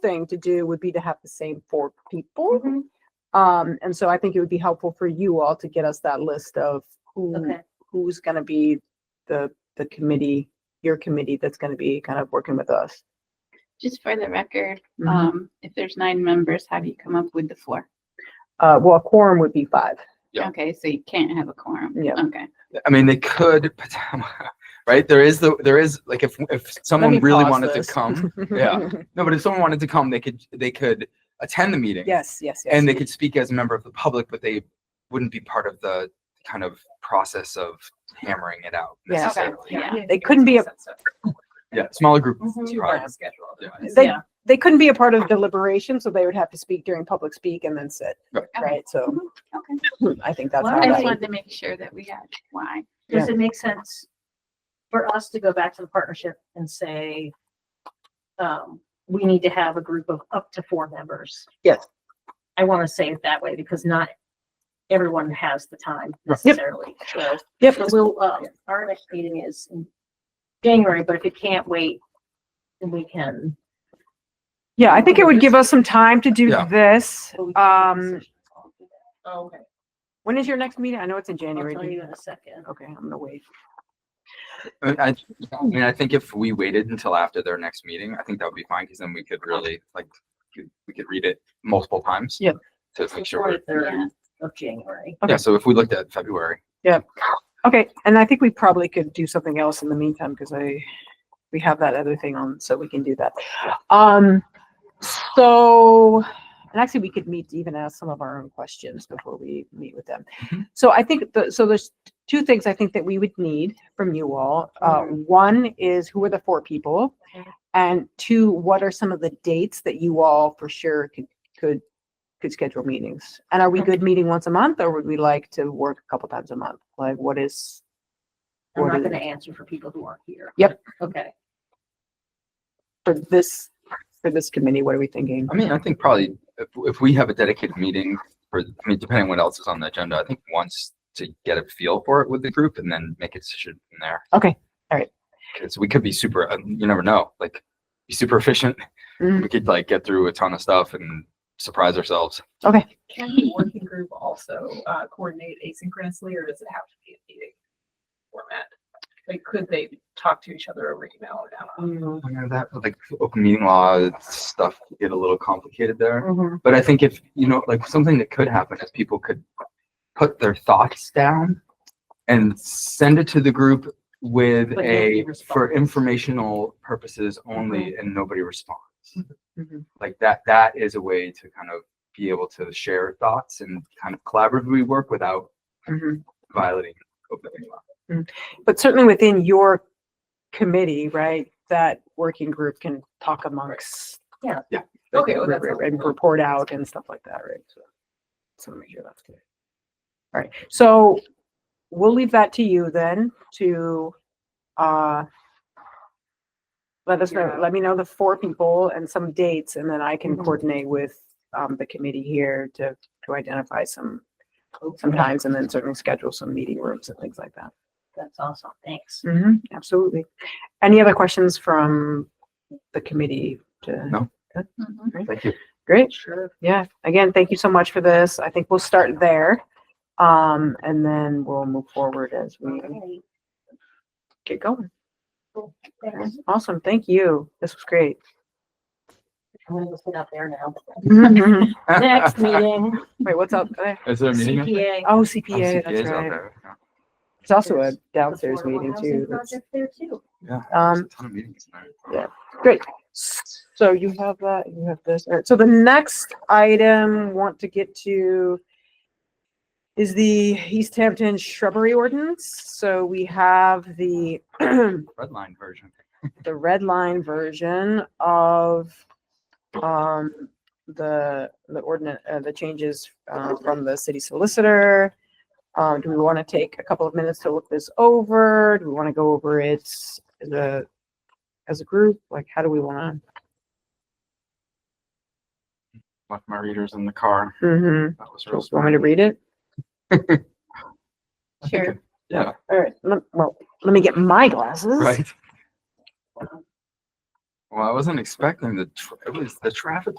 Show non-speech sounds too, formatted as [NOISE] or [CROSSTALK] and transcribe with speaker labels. Speaker 1: thing to do would be to have the same four people.
Speaker 2: Mm-hmm.
Speaker 1: Um, and so I think it would be helpful for you all to get us that list of who,
Speaker 3: Okay.
Speaker 1: who's gonna be the, the committee, your committee that's gonna be kind of working with us.
Speaker 2: Just for the record,
Speaker 1: Mhm.
Speaker 2: um, if there's nine members, how do you come up with the four?
Speaker 1: Uh, well, a quorum would be five.
Speaker 4: Yeah.
Speaker 2: Okay, so you can't have a quorum.
Speaker 1: Yeah.
Speaker 2: Okay.
Speaker 4: I mean, they could, potem- [LAUGHS] right? There is the there is like if if someone
Speaker 1: me
Speaker 4: really
Speaker 1: pause
Speaker 4: wanted
Speaker 1: this. [LAUGHS]
Speaker 4: to come, yeah. no, but if someone wanted to come, they could they could attend the meeting.
Speaker 1: Yes, yes, yes.
Speaker 4: and they could speak as a member of the public, but they wouldn't be part of the kind of process of hammering it out
Speaker 1: Yeah. Okay.
Speaker 4: necessarily.
Speaker 2: Yeah.
Speaker 1: They couldn't be a-
Speaker 4: Yeah, smaller group.
Speaker 1: Mm-hmm.
Speaker 2: Mhm.
Speaker 4: Right.
Speaker 1: They,
Speaker 2: Yeah.
Speaker 1: they couldn't be a part of deliberation, so they would have to speak during public speak and then sit,
Speaker 4: Right.
Speaker 1: right? So
Speaker 2: Okay.
Speaker 1: I think that's how
Speaker 3: Well,
Speaker 2: I just
Speaker 1: that.
Speaker 2: wanted to make sure that we had why.
Speaker 3: Does it make sense for us to go back to the partnership and say, um, we need to have a group of up to four members?
Speaker 1: Yes.
Speaker 3: I want to say it that way because not everyone has the time
Speaker 4: Right.
Speaker 1: Yep.
Speaker 3: necessarily. So
Speaker 1: Yep.
Speaker 3: so we'll, uh, our next meeting is in January, but if it can't wait, then we can.
Speaker 1: Yeah, I think it would give us some time to do
Speaker 4: Yeah.
Speaker 1: this.
Speaker 3: but we can make
Speaker 1: Um,
Speaker 3: decisions. Oh, Okay,
Speaker 1: when is your next meeting? I know it's in
Speaker 3: I'll
Speaker 1: January.
Speaker 3: tell
Speaker 1: Do you-
Speaker 3: you in a second.
Speaker 1: Okay, I'm gonna wait.
Speaker 4: I mean, I, I mean, I think if we waited until after their next meeting, I think that would be fine because then we could really like could- we could read it multiple times.
Speaker 1: Yep.
Speaker 4: To make sure. we're-
Speaker 3: Twenty-third of January.
Speaker 1: Okay.
Speaker 4: Yeah. So if we looked at February,
Speaker 1: Okay, and I think we probably could do something else in the meantime, because I, we have that other thing on, so we can do that. Um, so, and actually, we could meet to even ask some of our own questions before we meet with them.
Speaker 4: Mhm.
Speaker 1: So I think, the so there's two things I think that we would need from you all. Uh, one is who are the four people?
Speaker 3: Mhm.
Speaker 1: And two, what are some of the dates that you all for sure could, could, could schedule meetings? And are we good meeting once a month, or would we like to work a couple times a month? Like, what is?
Speaker 3: I'm
Speaker 1: what
Speaker 3: not
Speaker 1: is-
Speaker 3: gonna answer for people who aren't here.
Speaker 1: Yep.
Speaker 3: Okay.
Speaker 1: For this, for this committee, what are we thinking?
Speaker 4: I mean, I think probably if, if we have a dedicated meeting for, I mean, depending on what else is on the agenda, I think once to get a feel for it with the group and then make a decision from there.
Speaker 1: Okay, all right.
Speaker 4: Because we could be super, uh, you never know, like be super efficient.
Speaker 1: Mm.
Speaker 4: We could like get through a ton of stuff and surprise ourselves.
Speaker 5: Can the working group also uh, coordinate asynchronously, or does it have to be a meeting format? Like, could they talk to each other over email or down?
Speaker 4: I know that like open meeting law stuff get a little complicated there.
Speaker 1: Mm-hmm,
Speaker 3: Mhm.
Speaker 4: But I think if, you know, like something that could happen is people could put their thoughts down and send it to the group with
Speaker 3: But nobody
Speaker 4: a, for
Speaker 3: responds.
Speaker 4: informational purposes only, and nobody responds.
Speaker 1: Mhm.
Speaker 4: Like that, that is a way to kind of be able to share thoughts and kind of collaboratively work without
Speaker 1: Mhm.
Speaker 4: violating open meeting law.
Speaker 1: But certainly within your committee, right, that working group can talk amongst.
Speaker 5: Okay, well, that's
Speaker 1: right, right, right, And
Speaker 5: helpful.
Speaker 1: report out and stuff like that, right? So- So make sure that's good. All right, so we'll leave that to you then to, uh, let us know,
Speaker 5: Yeah. Mm-hmm.
Speaker 1: let me know the four people and some dates, and then I can
Speaker 3: Mhm.
Speaker 1: coordinate with, um, the committee here to, to identify some, some times and then certainly schedule some meeting rooms and things like that.
Speaker 3: That's awesome, thanks.
Speaker 1: Mhm, absolutely. Any other questions from the committee? to-
Speaker 4: No.
Speaker 2: Mhm.
Speaker 4: Thank you.
Speaker 1: Great,
Speaker 3: Sure.
Speaker 1: yeah. Again, thank you so much for this. I think we'll start there. Um, and then we'll move forward as we
Speaker 3: Okay,
Speaker 1: get going.
Speaker 3: thanks.
Speaker 1: [LAUGHS] Awesome, thank you. This was great.
Speaker 3: I'm gonna go sit out there now.
Speaker 1: Wait,
Speaker 4: [LAUGHS]
Speaker 1: [LAUGHS]
Speaker 3: Next meeting,
Speaker 1: what's up there?
Speaker 4: Is there a meeting? out there?
Speaker 3: CPA.
Speaker 1: Oh,
Speaker 4: Oh,
Speaker 1: CPA, that's
Speaker 4: CPA's out
Speaker 1: right.
Speaker 4: there, yeah.
Speaker 1: It's also a
Speaker 3: The
Speaker 1: downstairs
Speaker 3: affordable
Speaker 1: meeting
Speaker 3: housing
Speaker 1: too. that's-
Speaker 3: project There too.
Speaker 4: Yeah.
Speaker 1: Um,
Speaker 4: there's a ton of meetings in there.
Speaker 1: yeah. So you have that, you have this. All right, so the next item want to get to is the East Hampton shrubbery ordinance. So we have the, [CLEARS THROAT] the
Speaker 4: Red line version.
Speaker 1: red line version of um, the, the ordinance, uh, the changes uh, from the city solicitor. Um, do we want to take a couple of minutes to look this over? Do we want to go over it as a, as a group? Like, how do we want to?
Speaker 4: Left my readers in the car.
Speaker 1: Mm-hmm.
Speaker 4: That was real.
Speaker 1: So, want me to read it?
Speaker 2: Sure.
Speaker 4: Yeah,
Speaker 1: All right. lem- Well, let me get my glasses.
Speaker 4: right. Well, I wasn't expecting the, tra- it was, the traffic